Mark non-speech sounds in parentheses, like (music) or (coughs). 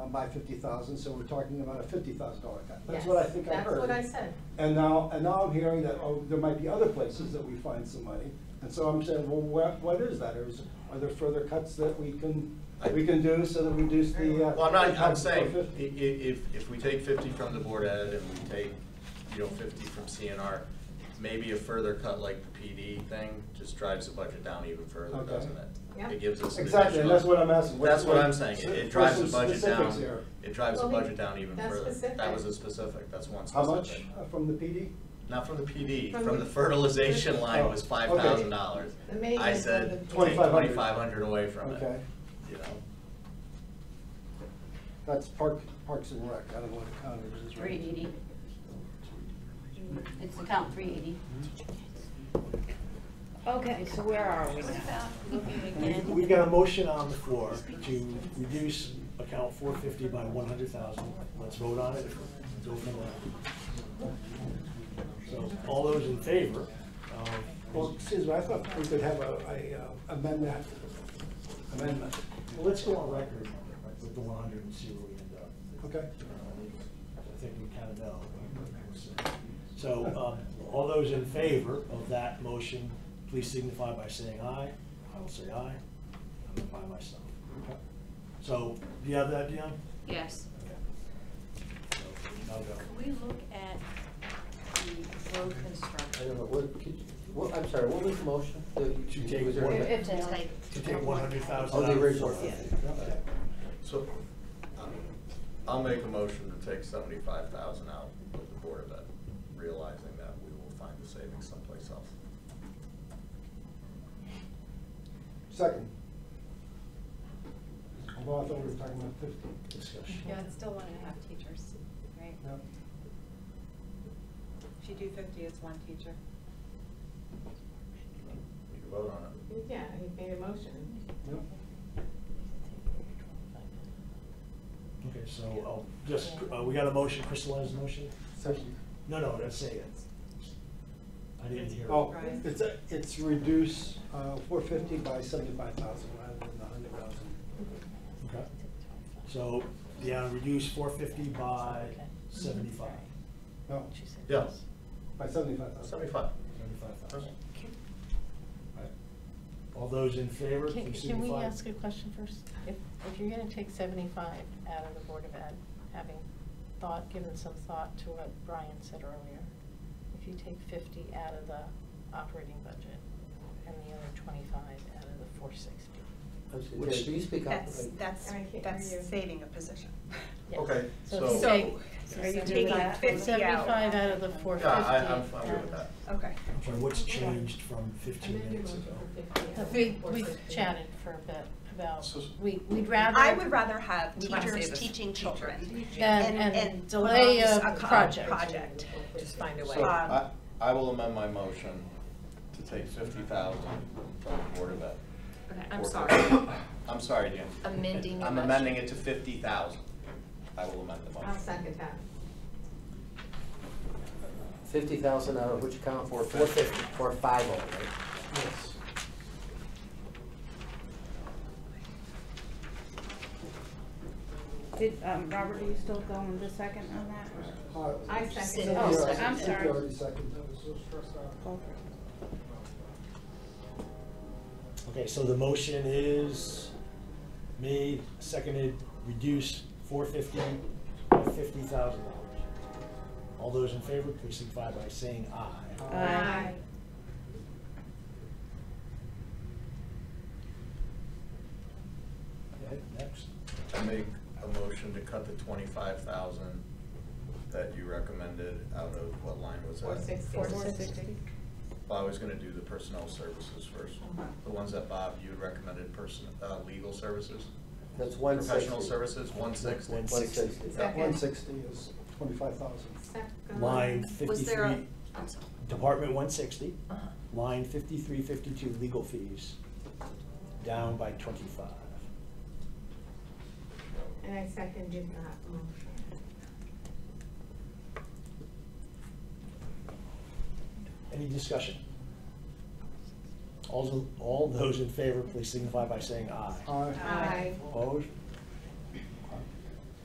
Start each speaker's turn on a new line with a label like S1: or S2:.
S1: by fifty thousand, so we're talking about a fifty thousand dollar cut. That's
S2: Yes,
S1: what I think I heard.
S2: That's what I said.
S1: And now, and now I'm hearing that, oh, there might be other places that we find some money. And so I'm saying, well, what, what is that? Or is, are there further cuts that we can, we can do so that we reduce the? uh,
S3: Well, I'm not, I'm
S1: impact to
S3: saying, i-
S1: 450?
S3: i- if, if we take fifty from the board ed and we take, you know, fifty from CNR, maybe a further cut like the PD thing just drives the budget down even further,
S1: Okay.
S3: doesn't it?
S2: Yeah.
S3: It gives us an
S1: Exactly, and
S3: additional-
S1: that's what I'm asking. What's-
S3: That's what I'm
S1: what-
S3: saying, it-
S1: for
S3: it drives the
S1: some
S3: budget
S1: specifics
S3: down,
S1: here.
S3: it drives the
S2: Well, we-
S3: budget down even
S2: that's
S3: further. That
S2: specific.
S3: was a specific, that's one
S1: How
S3: specific.
S1: much uh, from the PD?
S3: Not from the PD,
S2: From
S3: from
S2: the-
S3: the fertilization line
S1: Oh,
S3: was
S1: okay.
S3: five thousand dollars.
S2: The maintenance
S3: I
S2: of the-
S3: said, take
S1: 2,500.
S3: twenty-five hundred away from it,
S1: Okay.
S3: you know?
S1: That's Park, Parks and Rec, I don't know what account it is.
S4: Three eighty. It's account three eighty. Okay, so where are we now?
S5: We've- We've got a motion on the floor to reduce account four fifty by one hundred thousand. Let's vote on it. Go from there. So all those in favor of,
S1: Well,
S5: well,
S1: excuse me, I thought we could have a, a uh, amendment, amendment,
S5: let's go on record with the one hundred and see where we end up.
S1: okay?
S5: I think we kind of know. So, um, all those in favor of that motion, please signify by saying aye. I will say aye. I'm by myself. So, do you have that, Dion?
S4: Yes.
S5: Okay. So, I'll go.
S4: we look at the road
S6: I don't
S4: construction?
S6: know, what, could, you- what, I'm sorry, what was the motion? The-
S5: To take
S6: was there-
S5: one-
S4: If- if to take-
S5: To take one hundred thousand.
S6: Oh, the original.
S3: So, um, I'll make a motion to take seventy-five thousand out with the Board of Ed, realizing that we will find the savings someplace else.
S1: Second. Although I thought we were talking about fifty.
S5: Discussion.
S2: Yeah, it's still one and a half teachers, right?
S1: No.
S2: If you do fifty, it's one teacher.
S3: We can vote on it.
S2: Yeah, he made a motion.
S1: No.
S5: Okay, so, I'll just, uh, we got a motion, crystallize the motion?
S1: Second.
S5: No, no, that's say it. I didn't hear.
S1: Oh,
S2: Right.
S1: it's, a- it's reduce four fifty by seventy-five thousand rather than the hundred thousand.
S5: Okay. So, yeah, reduce four fifty by seventy-five.
S1: No,
S3: Yeah,
S1: by seventy-five thousand.
S3: Uh, seventy-five.
S5: Seventy-five thousand. All those in favor,
S7: Can,
S5: please
S7: can we
S5: signify.
S7: ask a question first? If, if you're gonna take seventy-five out of the Board of Ed, having thought, given some thought to what Brian said earlier, if you take fifty out of the operating budget and the other twenty-five out of the four sixty.
S6: Derek,
S5: Which-
S6: will you speak up?
S8: That's, that's,
S2: I can't hear you.
S8: that's saving a position.
S3: Okay,
S7: So
S3: so-
S7: if you
S8: So-
S7: take, are you
S8: So
S7: taking
S8: taking that 50 out.
S7: seventy-five out of the four
S3: Yeah,
S7: fifty?
S3: I, I'm, I'm good with that.
S8: Okay.
S5: I'm sorry, what's changed from fifteen minutes ago?
S7: We, we chatted for a bit about,
S3: So-
S7: we, we'd rather.
S8: I would rather have
S4: We wanna
S8: teachers
S4: save us.
S8: teaching children.
S7: Than,
S8: and-
S7: and
S8: and
S7: delay
S8: promote
S7: a
S8: a co-
S7: project.
S8: project.
S7: Just find a
S3: So
S8: Um,
S3: I, I will amend my motion to take fifty thousand from the Board of Ed.
S4: Okay,
S3: Or-
S4: I'm sorry.
S3: (coughs) I'm sorry, Dan.
S4: Amending your
S3: I'm
S4: motion.
S3: amending it to fifty thousand. I will amend the motion.
S2: I'll second that.
S6: Fifty thousand out of which account?
S3: Four fifty.
S6: Four fifty, four five oh, right?
S1: Yes.
S9: Did, um, Robert, are you still going the second on that? or-
S1: Uh,
S2: I second.
S1: Cynthia,
S9: Oh, I'm
S1: Cynthia
S9: sorry.
S1: already seconded.
S5: Okay, so the motion is made, seconded, reduce four fifty by fifty thousand dollars. All those in favor, please signify by saying aye.
S4: Uh,
S2: Aye.
S5: Okay, next.
S3: I make a motion to cut the twenty-five thousand that you recommended out of what line was that?
S2: Four sixty.
S3: Well, I was gonna do the personnel services first,
S2: Uh-huh.
S3: the ones that Bob, you had recommended person, uh, legal services?
S6: That's one sixty.
S3: Professional services, one sixty?
S5: One
S6: One
S5: sixty.
S6: sixty.
S2: Second.
S1: One sixty is twenty-five thousand.
S2: Second.
S5: Line
S4: Uh, Was there a,
S5: fifty-three,
S4: I'm sorry.
S5: Department one sixty,
S4: Uh-huh.
S5: line fifty-three, fifty-two, legal fees, down by twenty-five.
S2: And I seconded that motion.
S5: Any discussion? All, tho- all those in favor, please signify by saying aye.
S1: Aye.
S2: Aye.
S5: Opposed?